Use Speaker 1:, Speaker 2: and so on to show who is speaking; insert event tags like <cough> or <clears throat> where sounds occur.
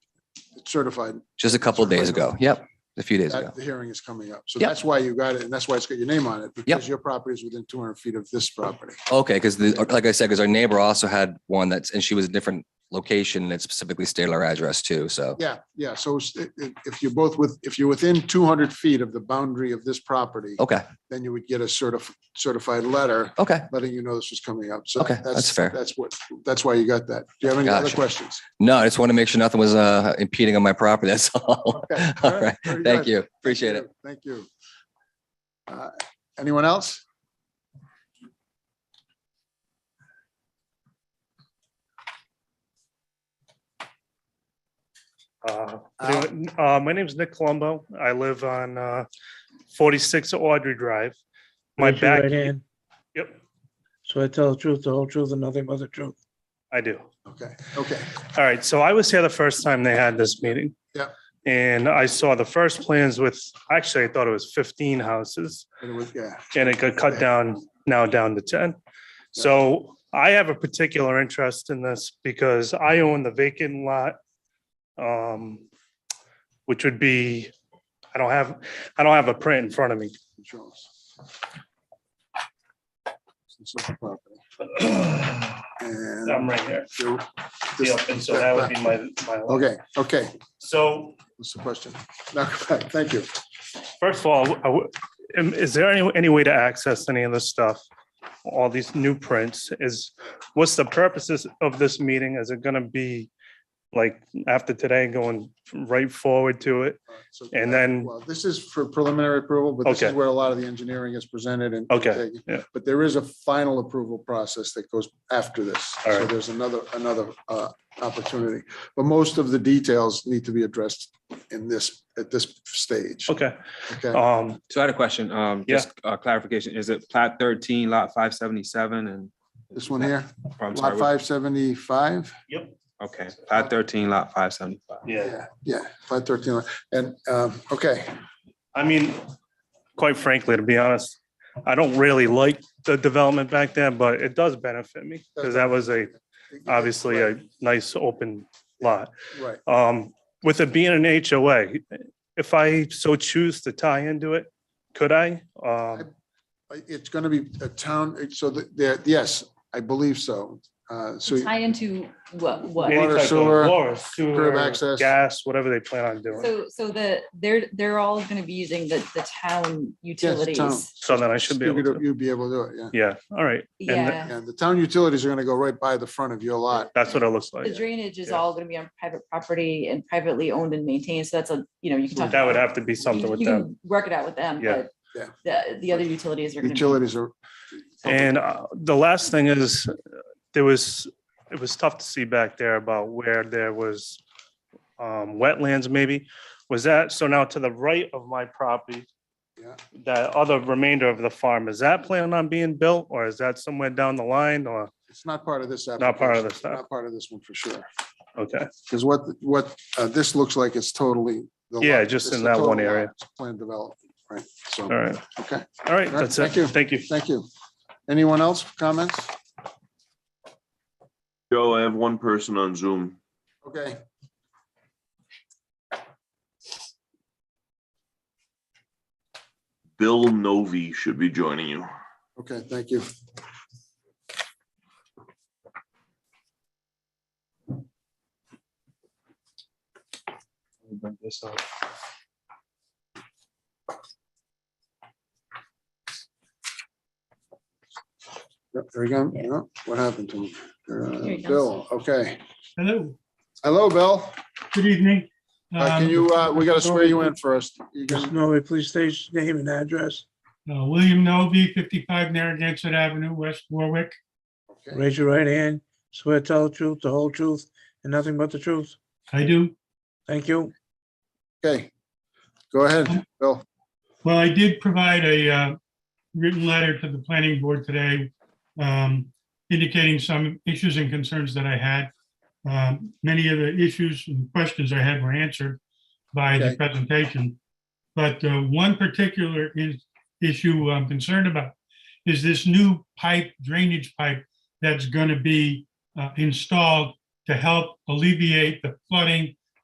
Speaker 1: certified.
Speaker 2: just a couple of days ago. Yep, a few days ago.
Speaker 1: That the hearing is coming up. So
Speaker 2: Yep.
Speaker 1: that's why you got it. And that's why it's got your name on it because your property is within two hundred feet of this property.
Speaker 2: Okay, because the, like I said, because our neighbor also had one that's, and she was a different location and it specifically stated our address too. So
Speaker 1: Yeah, yeah. So it's- i- i- if you're both with, if you're within two hundred feet of the boundary of this property,
Speaker 2: okay,
Speaker 1: then you would get a certif- certified letter
Speaker 2: okay.
Speaker 1: letting you know this was coming up. So
Speaker 2: Okay, that's fair.
Speaker 1: That's what, that's why you got that. Do you have any other
Speaker 2: Gotcha.
Speaker 1: questions?
Speaker 2: No, I just want to make sure nothing was uh, impeding on my property. <laughs> That's all.
Speaker 1: Okay, all
Speaker 2: All
Speaker 1: right,
Speaker 2: right.
Speaker 1: very
Speaker 2: Thank
Speaker 1: good.
Speaker 2: you. Appreciate it.
Speaker 1: Thank you. Uh, Anyone else?
Speaker 3: Uh, anyway, uh, My name's Nick Colombo. I live on uh, 46 Audrey Drive. My
Speaker 4: Raise your
Speaker 3: back,
Speaker 4: right hand.
Speaker 3: Yep.
Speaker 4: So I tell the truth, the whole truth, and nothing but the truth.
Speaker 3: I do.
Speaker 1: Okay, okay,
Speaker 3: All right, so I was here the first time they had this meeting.
Speaker 1: Yeah.
Speaker 3: And I saw the first plans with, actually, I thought it was 15 houses.
Speaker 1: and it was- yeah,
Speaker 3: and it got cut down, now down to ten. So I have a particular interest in this because I own the vacant lot. Um, which would be, I don't have, I don't have a print in front of me.
Speaker 1: it shows. This is the property.
Speaker 3: I'm <clears throat>
Speaker 1: And
Speaker 3: right here.
Speaker 1: you- this-
Speaker 3: Yep, and so that would be my, my. lot.
Speaker 1: Okay, okay,
Speaker 3: So
Speaker 1: what's the question? <laughs> Now, go back. Thank you.
Speaker 3: first of all, I w- am- is there any, any way to access any of this stuff? All these new prints is, what's the purposes of this meeting? Is it gonna be like after today going right forward to it?
Speaker 1: So- uh,
Speaker 3: And then-
Speaker 1: Well, This is for preliminary approval, but this is
Speaker 3: Okay.
Speaker 1: where a lot of the engineering is presented and.
Speaker 3: Okay, yeah.
Speaker 1: But there is a final approval process that goes after this.
Speaker 3: All
Speaker 1: So
Speaker 3: right.
Speaker 1: there's another, another uh, opportunity. But most of the details need to be addressed in this, at this stage.
Speaker 3: Okay,
Speaker 1: Okay,
Speaker 3: um,
Speaker 5: So I had a question, um,
Speaker 3: Yeah.
Speaker 5: just uh, clarification, is it plat thirteen, lot five seventy-seven and?
Speaker 1: this one here,
Speaker 5: or I'm sorry,
Speaker 1: lot five seventy-five.
Speaker 5: what- Okay, plat thirteen, lot five seventy-five.
Speaker 3: yeah,
Speaker 1: Yeah, five thirteen. And, um, okay,
Speaker 3: I mean, quite frankly, to be honest, I don't really like the development back there, but it does benefit me because that was a, obviously a nice open lot.
Speaker 1: right.
Speaker 3: Um, with it being an HOA, if I so choose to tie into it, could I? Um,
Speaker 1: Uh, It's going to be a town, so the- there, yes, I believe so. Uh, So
Speaker 6: Tie into what,
Speaker 3: any
Speaker 6: what?
Speaker 1: Water,
Speaker 3: type of
Speaker 1: sewer,
Speaker 3: water, sewer,
Speaker 1: access.
Speaker 3: Gas, whatever they plan on doing.
Speaker 6: So, so the, they're, they're all gonna be using the, the town utilities.
Speaker 3: So then I should be able
Speaker 1: you could-
Speaker 3: to,
Speaker 1: you'd be able to do it, yeah.
Speaker 3: yeah, all right. And
Speaker 6: Yeah,
Speaker 1: And the town utilities are going to go right by the front of your lot.
Speaker 3: that's what it looks
Speaker 6: the
Speaker 3: like.
Speaker 6: drainage is
Speaker 3: Yeah.
Speaker 6: all gonna be on private property and privately owned and maintained, so that's a, you know, you can talk.
Speaker 3: That would have to be something
Speaker 6: you-
Speaker 3: with
Speaker 6: you
Speaker 3: them.
Speaker 6: can Work it out with them,
Speaker 3: Yeah.
Speaker 6: but
Speaker 1: Yeah.
Speaker 6: the, the other utilities are gonna be.
Speaker 1: Utilities are,
Speaker 3: And uh, the last thing is, uh, there was, it was tough to see back there about where there was um, wetlands maybe. Was that, so now to the right of my property,
Speaker 1: Yeah.
Speaker 3: that other remainder of the farm, is that planning on being built or is that somewhere down the line or,
Speaker 1: it's not part of this.
Speaker 3: Not part of
Speaker 1: application.
Speaker 3: this, no.
Speaker 1: Not part of this one for sure.
Speaker 3: okay,
Speaker 1: Because what, what uh, this looks like is totally. the lot.
Speaker 3: Yeah, just
Speaker 1: It's
Speaker 3: in
Speaker 1: the
Speaker 3: that
Speaker 1: total
Speaker 3: one
Speaker 1: lot.
Speaker 3: area.
Speaker 1: It's Planned development, right? So,
Speaker 3: all right,
Speaker 1: okay,
Speaker 3: all right,
Speaker 1: All right,
Speaker 3: that's
Speaker 1: thank you.
Speaker 3: it, thank you.
Speaker 1: thank you. Anyone else for comments?
Speaker 7: Joe, I have one person on Zoom.
Speaker 1: Okay.
Speaker 7: Bill Novi should be joining you.
Speaker 1: Okay, thank you. Yep, There we go.
Speaker 6: Yeah.
Speaker 1: Yep, What happened to him?
Speaker 6: Here
Speaker 1: Uh,
Speaker 6: he
Speaker 1: Bill, okay.
Speaker 8: Hello,
Speaker 1: Hello, Bill.
Speaker 8: good evening.
Speaker 1: Uh, Can
Speaker 8: Um,
Speaker 1: you, uh, we got to swear you in first. You can-
Speaker 4: Just know, please state your name and address.
Speaker 8: uh, William Novy, 55 Narragansett Avenue, West Warwick.
Speaker 1: okay.
Speaker 4: Raise your right hand. Swear to tell the truth, the whole truth, and nothing but the truth.
Speaker 8: I do.
Speaker 4: Thank you.
Speaker 1: Okay. Go ahead, Bill.
Speaker 8: Well, I did provide a uh, written letter to the planning board today um, indicating some issues and concerns that I had. Um, Many of the issues and questions I had were answered by the
Speaker 1: Okay.
Speaker 8: presentation. But uh, one particular is- issue I'm concerned about is this new pipe, drainage pipe, that's going to be uh, installed to help alleviate the flooding